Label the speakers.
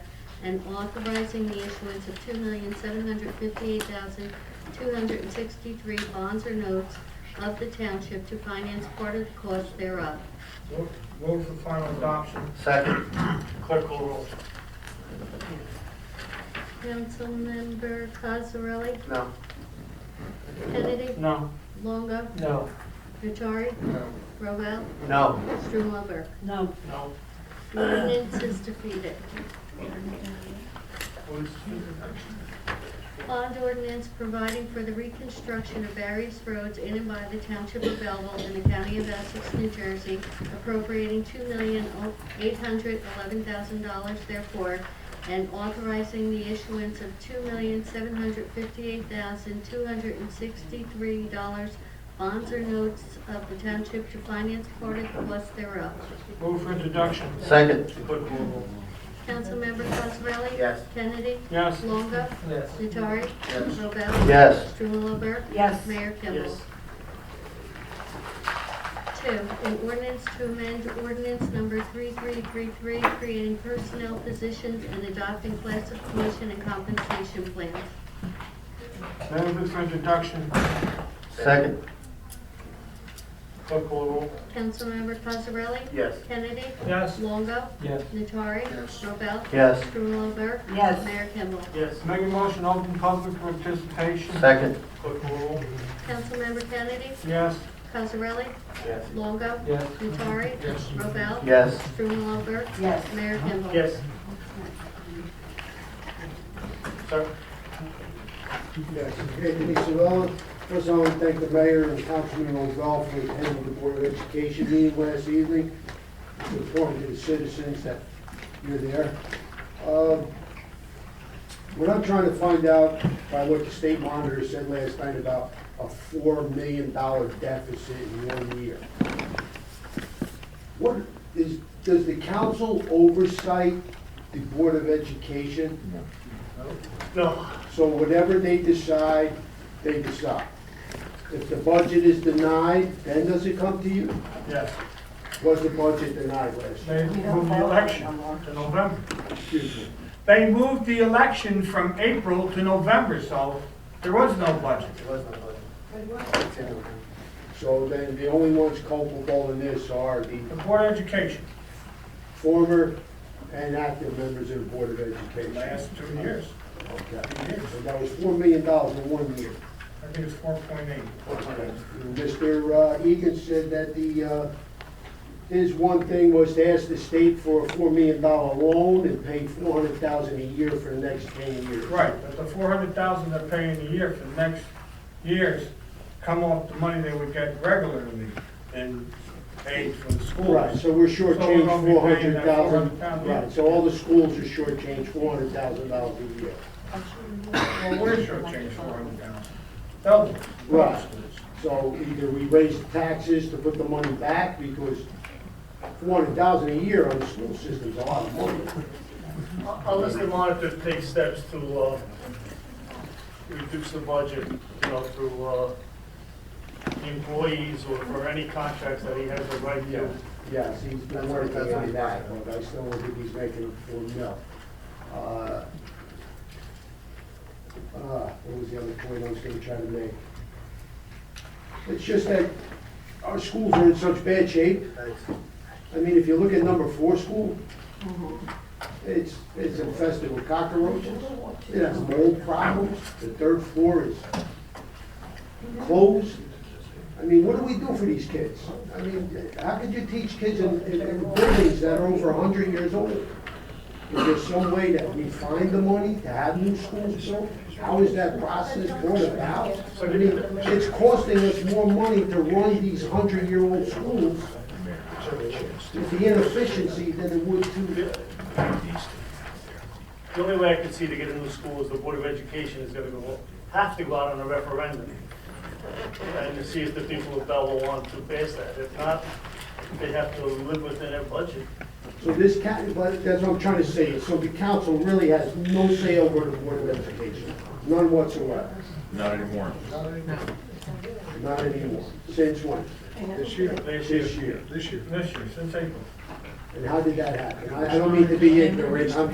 Speaker 1: and authorizing the issuance of two million, seven hundred fifty-eight thousand, two hundred and sixty-three bonds or notes of the township to finance part of the cost thereof.
Speaker 2: Move- Move for final adoption.
Speaker 3: Second.
Speaker 2: Clerk call roll.
Speaker 1: Councilmember Cosarelli?
Speaker 3: No.
Speaker 1: Kennedy?
Speaker 2: No.
Speaker 1: Longo?
Speaker 2: No.
Speaker 1: Nutari?
Speaker 2: No.
Speaker 1: Rovell?
Speaker 3: No.
Speaker 1: Strumelberg?
Speaker 4: No,
Speaker 2: No.
Speaker 1: The ordinance is defeated. Bond ordinance providing for the reconstruction of various roads in and by the township of Belleville in the county of Essex, New Jersey, appropriating two million oh, eight hundred eleven thousand dollars therefore, and authorizing the issuance of two million seven hundred fifty-eight thousand two hundred and sixty-three dollars bonds or notes of the township to finance part of the cost thereof.
Speaker 2: Move for introduction.
Speaker 3: Second.
Speaker 2: Clerk call roll.
Speaker 1: Councilmember Cosarelli?
Speaker 3: Yes.
Speaker 1: Kennedy?
Speaker 2: Yes.
Speaker 1: Longo?
Speaker 2: Yes.
Speaker 1: Nattari?
Speaker 3: Yes.
Speaker 1: Robel?
Speaker 3: Yes.
Speaker 1: Strumelberg?
Speaker 4: yes.
Speaker 1: Mayor Kimball?
Speaker 2: Yes.
Speaker 1: Two, an ordinance to amend ordinance number 3333, creating personnel positions and adopting classification and compensation plans.
Speaker 2: Move it for introduction.
Speaker 3: Second.
Speaker 2: Clerk call roll.
Speaker 1: Councilmember Cosarelli?
Speaker 3: Yes.
Speaker 1: Kennedy?
Speaker 2: Yes.
Speaker 1: Longo?
Speaker 2: Yes.
Speaker 1: Nattari? Robel?
Speaker 3: Yes.
Speaker 1: Strumelberg?
Speaker 4: Yes.
Speaker 1: Mayor Kimball?
Speaker 2: Yes. Make a motion, open public participation.
Speaker 3: Second.
Speaker 2: Clerk call roll.
Speaker 1: Councilmember Kennedy?
Speaker 2: Yes.
Speaker 1: Cosarelli?
Speaker 3: Yes.
Speaker 1: Longo?
Speaker 2: Yes.
Speaker 1: Nattari?
Speaker 2: Yes.
Speaker 1: Robel?
Speaker 3: Yes.
Speaker 1: Strumelberg?
Speaker 4: Yes.
Speaker 1: Mayor Kimball?
Speaker 2: Sir.
Speaker 5: Yes, okay, Denise Savella, first I want to thank the mayor and Councilman Rozal for attending the Board of Education meeting last evening, informing the citizens that you're there. Uh, What I'm trying to find out by what the state monitor said last night about a four million dollar deficit in one year. What is, does the council oversight the Board of Education?
Speaker 2: No.
Speaker 5: So whatever they decide, they decide. If the budget is denied, then does it come to you?
Speaker 2: Yes.
Speaker 5: Was the budget denied last
Speaker 2: They
Speaker 5: year?
Speaker 2: moved the election to November.
Speaker 5: Excuse me.
Speaker 2: They moved the election from April to November, so there was no budget.
Speaker 5: So then the only ones culpable in this are the
Speaker 2: The Board of Education,
Speaker 5: former and active members of the Board of
Speaker 2: the
Speaker 5: Education.
Speaker 2: last two years,
Speaker 5: Okay.
Speaker 2: years.
Speaker 5: So that was four million dollars in one year.
Speaker 2: I think it's four point eight.
Speaker 5: And Mr. uh, Egan said that the, uh, his one thing was to ask the state for a four million dollar loan and pay four hundred thousand a year for the next ten years.
Speaker 2: Right, but the four hundred thousand they're paying a year for the next years come off the money they would get regularly and paid from the schools.
Speaker 5: Right, so we're
Speaker 2: So we're gonna
Speaker 5: shortchanged
Speaker 2: be
Speaker 5: four
Speaker 2: paying
Speaker 5: hundred
Speaker 2: that
Speaker 5: thousand.
Speaker 2: $400,000.
Speaker 5: Right, so all the schools are shortchanged four hundred thousand dollars a year.
Speaker 2: Well, we're shortchanged four hundred thousand. Double.
Speaker 5: Right. So either we raise the taxes to put the money back, because four hundred thousand a year on the school system's a lot of money.
Speaker 6: Unless the monitor takes steps to uh, reduce the budget, you know, through uh, employees or or any contracts that he has the right to.
Speaker 5: Yes, he's been working on that, but I still don't think he's making a full mill. Uh, uh, What was the other point I was gonna try to make? It's just that our schools are in such bad shape. I mean, if you look at number four school, it's, it's infested with cockroaches. It has mold problems. The third floor is closed. I mean, what do we do for these kids? I mean, how could you teach kids in, in in buildings that are over hundred years old? Is there some way that we find the money to have new schools built? How is that process going about? I mean, it's costing us more money to run these hundred-year-old schools with the inefficiency than it would to,
Speaker 6: The only way I can see to get a new school is the Board of Education is gonna go, have to go out on a referendum. And to see if the people of Belleville want to pass that. If not, they have to live within their budget.
Speaker 5: so this ca, but that's what I'm trying to say, so the council really has no say over the Board of Education, none whatsoever,
Speaker 7: Not anymore.
Speaker 5: not anymore, since when?
Speaker 2: This year. This
Speaker 5: This
Speaker 2: year,
Speaker 5: year.
Speaker 2: this year, since April.
Speaker 5: And how did that happen? I I don't mean to be ignorant, I'm